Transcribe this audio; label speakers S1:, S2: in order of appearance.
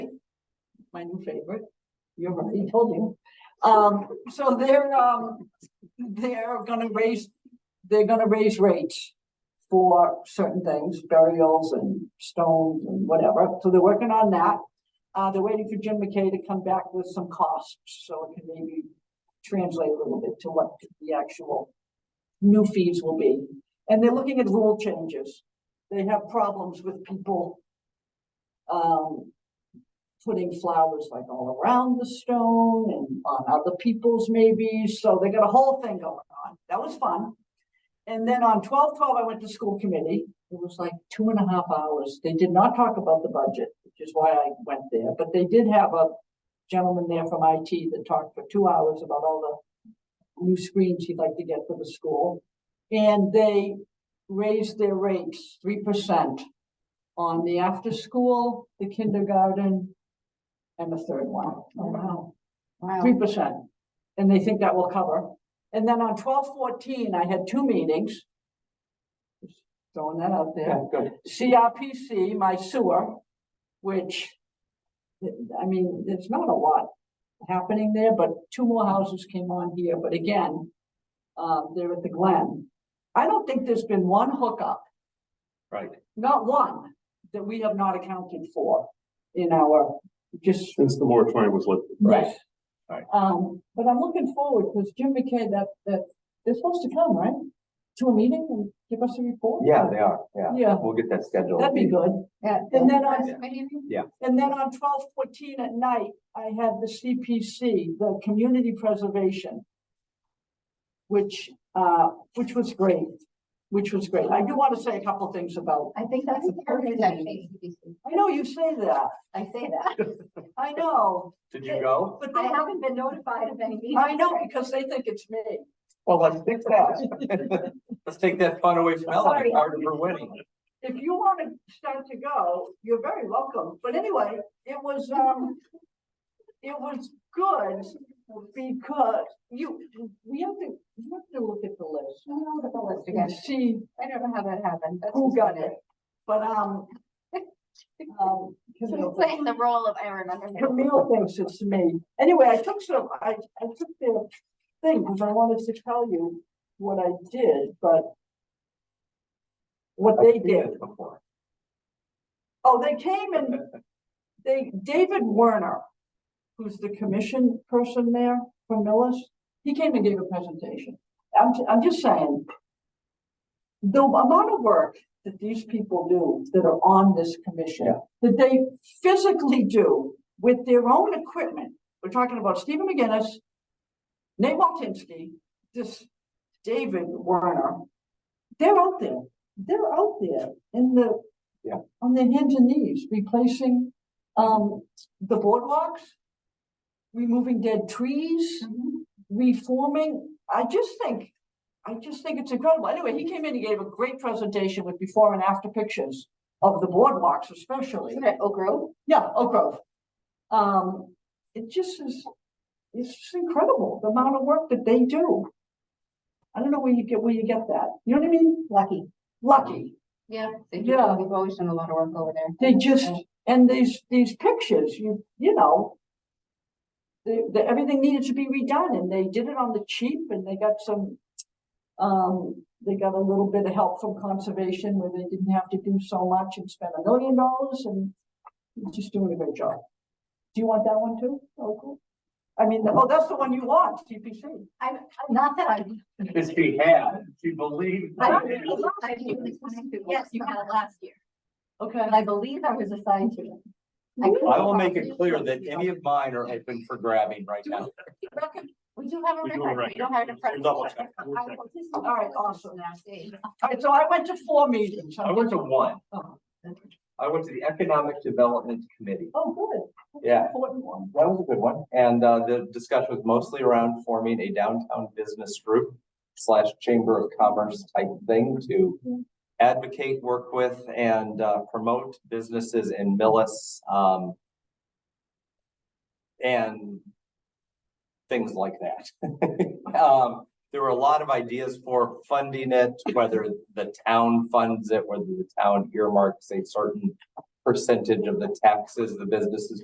S1: my new favorite. You already told you. Um, so they're, um, they're gonna raise, they're gonna raise rates for certain things, burials and stones and whatever. So they're working on that. Uh, they're waiting for Jim McKay to come back with some costs, so it can maybe translate a little bit to what the actual new fees will be. And they're looking at rule changes. They have problems with people um, putting flowers like all around the stone and on other people's maybe, so they got a whole thing going on. That was fun. And then on twelve twelve, I went to school committee. It was like two and a half hours. They did not talk about the budget, which is why I went there, but they did have a gentleman there from IT that talked for two hours about all the new screens he'd like to get for the school. And they raised their rates three percent on the after-school, the kindergarten, and the third one.
S2: Oh, wow.
S1: Three
S2: Wow.
S1: percent, and they think that will cover. And then on twelve fourteen, I had two meetings. Just Throwing that out there.
S3: good.
S1: CRPC, my sewer, which, I mean, there's not a lot happening there, but two more houses came on here, but again, uh, they're at the Glen. I don't think there's been one hookup,
S3: Right.
S1: not one, that we have not accounted for in our, just,
S3: Since the moratorium was lifted.
S1: yes.
S3: Right.
S1: Um, but I'm looking forward, because Jim McKay, that, that, they're supposed to come, right? To a meeting and give us a report?
S4: Yeah, they are, yeah.
S1: Yeah,
S4: We'll get that scheduled.
S1: that'd be good.
S2: At
S1: And
S2: the
S1: then on-
S2: first meeting?
S1: And then on twelve fourteen at night, I had the CPC, the community preservation. Which, uh, which was great, which was great. I do want to say a couple things about,
S2: I think that's the
S1: Perfect.
S2: perfect actually.
S1: I know you say that,
S2: I say that.
S1: I know,
S3: Did you go?
S1: but
S2: I
S1: they,
S2: haven't been notified of any meetings.
S1: I know because they think it's me.
S4: Well, let's fix that. Let's take that fun away from Ellen,
S2: Sorry.
S4: it's hard for winning.
S1: If you want to start to go, you're very welcome. But anyway, it was, um, it was good because you, we have to, you have to look at the list
S2: I don't know what the list again.
S1: and see
S2: I don't know how that happened. That's
S1: who
S2: just
S1: got
S2: funny.
S1: it, but, um, um,
S2: So
S1: Camille
S2: he's playing the role of Aaron Underhill.
S1: Camille thinks it's me. Anyway, I took some, I, I took their thing, because I wanted to tell you what I did, but what they
S4: I've seen
S1: did.
S4: this before.
S1: Oh, they came and they, David Werner, who's the commission person there from Millis, he came and gave a presentation. I'm, ju- I'm just saying, the amount of work that these people do that are on this commission,
S4: Yeah.
S1: that they physically do with their own equipment. We're talking about Stephen McGinnis, Nate Waltinsky, this David Werner. They're out there, they're out there in the on their hands and knees, replacing, um, the boardwalks, removing dead trees,
S2: Mhm.
S1: reforming. I just think, I just think it's incredible. Anyway, he came in, he gave a great presentation with before and after pictures of the boardwalks especially.
S2: Isn't it Oak Grove?
S1: Yeah, Oak Grove. Um, it just is, it's just incredible, the amount of work that they do. I don't know where you get, where you get that. You know what I mean?
S2: Lucky.
S1: Lucky.
S2: Yeah. They
S1: Yeah.
S2: do. We've always done a lot of work over there.
S1: They just, and these, these pictures, you, you know. The, the, everything needed to be redone and they did it on the cheap and they got some. Um, they got a little bit of help from conservation where they didn't have to do so much and spend a million dollars and. they're Just doing a great job. Do you want that one too? Oh, cool. I mean, oh, that's the one you want, CPC.
S2: I'm, not that I'm.
S3: Because she had, she believed.
S2: I
S1: Right.
S2: believe I was assigned to it. Yes, you had it last year,
S1: Okay.
S2: but I believe I was assigned to it. I
S4: I will make it clear that any of mine are open for grabbing right now.
S2: We do have a
S3: We do have a
S2: record, we
S3: record.
S2: don't have
S3: We'll
S2: a president.
S3: double check. We'll check.
S1: All right, awesome. All right, so I went to four meetings.
S4: I went to one,
S1: Oh,
S4: I went to the Economic Development Committee.
S1: oh, good. That's an
S4: Yeah.
S1: Important one.
S4: That was a good one, and uh, the discussion was mostly around forming a downtown business group slash chamber of commerce type thing to advocate, work with, and uh, promote businesses in Millis. um, And things like that. Um, There were a lot of ideas for funding it, whether the town funds it, whether the town earmarks a certain percentage of the taxes the businesses